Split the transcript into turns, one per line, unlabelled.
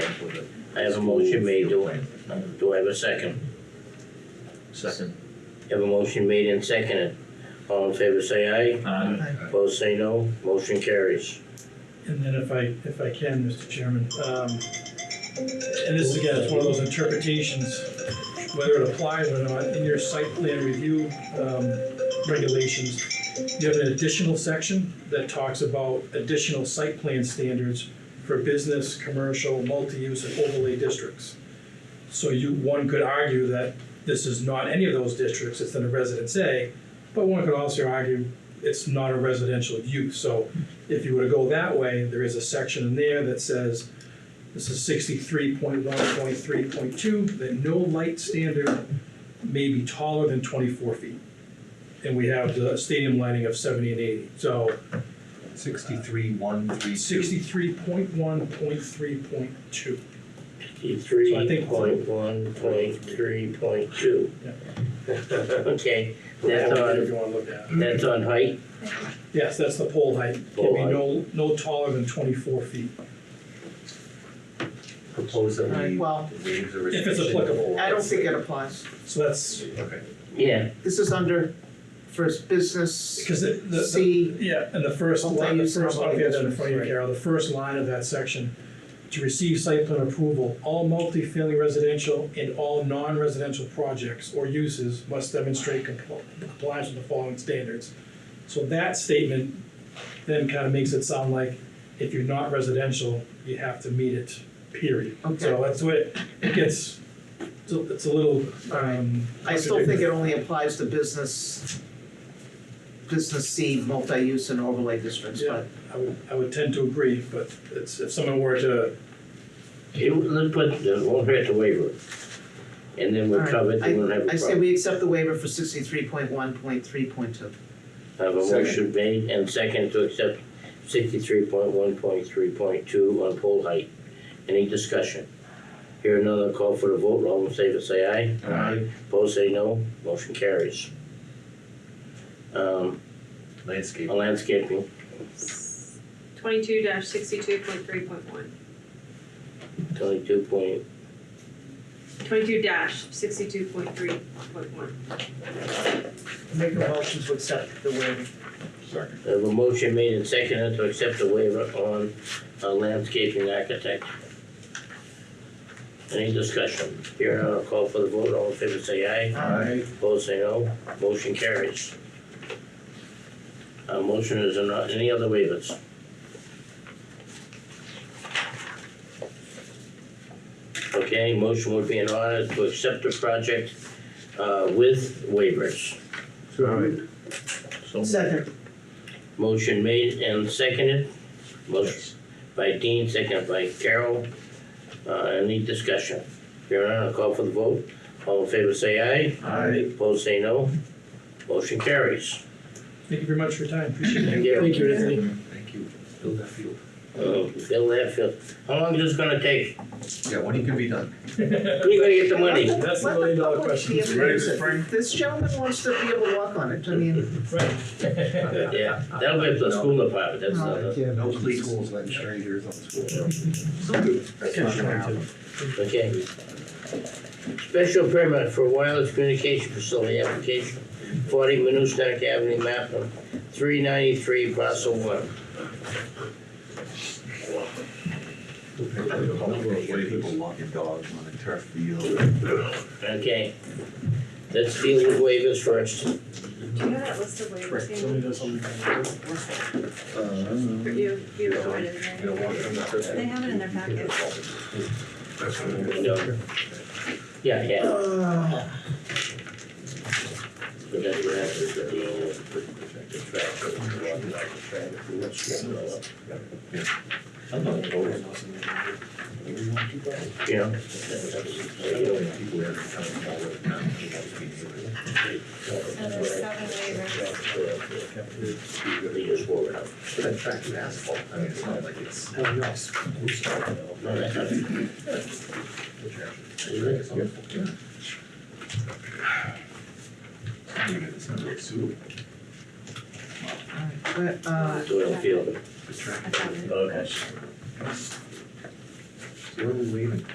I have a motion made, do I, do I have a second?
Second.
Have a motion made and seconded. All in favor say aye,
Aye.
opposed say no, motion carries.
And then if I, if I can, Mr. Chairman, um, and this is again, it's one of those interpretations, whether it applies or not, in your site plan review, um, regulations, you have an additional section that talks about additional site plan standards for business, commercial, multi-use and overlay districts. So you, one could argue that this is not any of those districts, it's in a residence A, but one could also argue it's not a residential use, so if you were to go that way, there is a section in there that says, this is sixty-three point one point three point two, that no light standard may be taller than twenty-four feet. And we have the stadium lighting of seventy and eighty, so
Sixty-three, one, three, two.
sixty-three point one point three point two. So I
Fifty-three
think-
point one, point three, point two.
Yeah.
Okay, that's
If
on,
you wanna look at it.
that's on height,
Yes, that's the pole height, can
Pole
be
height.
no, no taller than twenty-four feet.
Propose that
Alright,
we
well,
waive the
If
restriction.
it's applicable.
I don't think it applies.
So that's,
Okay.
yeah,
This is under first business
because it, the, the-
C,
Yeah, and the first
Multi-use
line, the
and
first, I'll get that in
multi-use,
front of you,
right.
Carol, the first line of that section. To receive site plan approval, all multifamily residential and all non-residential projects or uses must demonstrate compl- compliance with the following standards. So that statement then kind of makes it sound like if you're not residential, you have to meet it, period.
Okay.
So that's what, it it gets, it's a- it's a little, um.
I still think it only applies to business, business C, multi-use and overlay districts, but
I would, I would tend to agree, but it's, if someone were to
it, let's put, it won't hurt to waiver it. And then we're
Alright,
covered, we won't have a
I say
problem.
we accept the waiver for sixty-three point one point three point two.
I Have a motion made and second to accept sixty-three point one, point three, point two on pole height. Any discussion? Here another call for the vote, all in favor say aye.
Aye.
Opposed say no, motion carries. Um,
Landscape.
landscaping,
Twenty-two dash sixty-two point three point one.
twenty-two point,
Twenty-two dash sixty-two point three point one.
Make a motion to accept the waiver.
I have a motion made and seconded to accept the waiver on uh, landscaping architect. Any discussion? Here another call for the vote, all in favor say aye.
Aye.
Opposed, say no. Motion carries. Uh, motion is there not any other waivers? Okay, motion would be in order to accept the project, uh, with waivers.
So.
Second,
Motion made and seconded. Motion by Dean, seconded by Carol. Uh, any discussion? Here none, I'll call for the vote. All in favor, say aye.
Aye.
Opposed, say no. Motion carries.
Thank you very much for your time, appreciate it.
Thank you, Anthony.
Thank you. Build that field.
Bill Hatfield, how long is this gonna take?
Yeah, when it can be done.
Where you gonna get the money?
That's the
let
million
the
dollar
public
question.
be able to use it. This gentleman wants to be able to walk on it, I mean,
Right.
Yeah, that'll be at the school department, that's uh, not, a-
No police schools letting strangers on school. That's not gonna happen.
okay. Special permit for wireless communication facility application, forty Minustack Avenue, map of three ninety-three, parcel one.
A number of ways people walking dogs on a turf
Uh-huh.
field.
Okay, let's deal with waivers first.
Do you have that list of waivers, Andy?
Uh,
You, you wrote it in there.
You know, walking on the turf.
They have it in their packet.
No. Yeah, yeah.
uh,
but that's what happens at the end.
I'm not voting.
You know?
So there's seven waivers.
They just wore it out.
But that track is asphalt, I mean, it's not like it's.
No, that's not-
It's not very suitable.
but, uh,
Doyle Field.
I found it.
Okay. So what are we leaving?